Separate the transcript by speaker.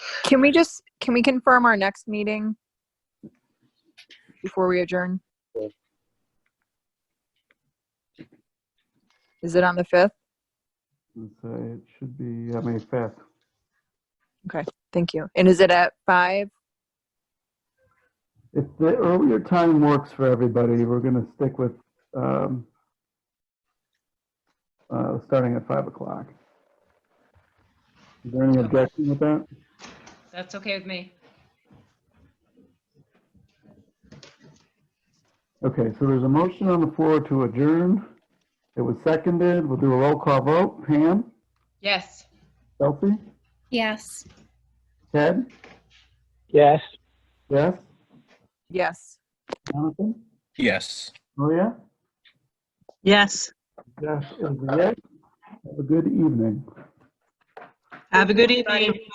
Speaker 1: Can we just, can we confirm our next meeting? Before we adjourn? Is it on the 5th?
Speaker 2: Let's say it should be, I mean, fifth.
Speaker 1: Thank you. And is it at 5?
Speaker 2: If the earlier time works for everybody, we're gonna stick with, um, uh, starting at five o'clock. Is there any objection with that?
Speaker 3: That's okay with me.
Speaker 2: Okay, so there's a motion on the floor to adjourn. It was seconded. We'll do a roll call vote. Pam,
Speaker 3: Yes.
Speaker 2: Delphi,
Speaker 4: Yes.
Speaker 2: Ted,
Speaker 5: Yes.
Speaker 2: yes,
Speaker 1: Yes.
Speaker 2: Jonathan,
Speaker 6: Yes.
Speaker 2: Maria?
Speaker 7: Yes.
Speaker 2: Yes. is a yes. Have a good evening.
Speaker 7: Have a good evening.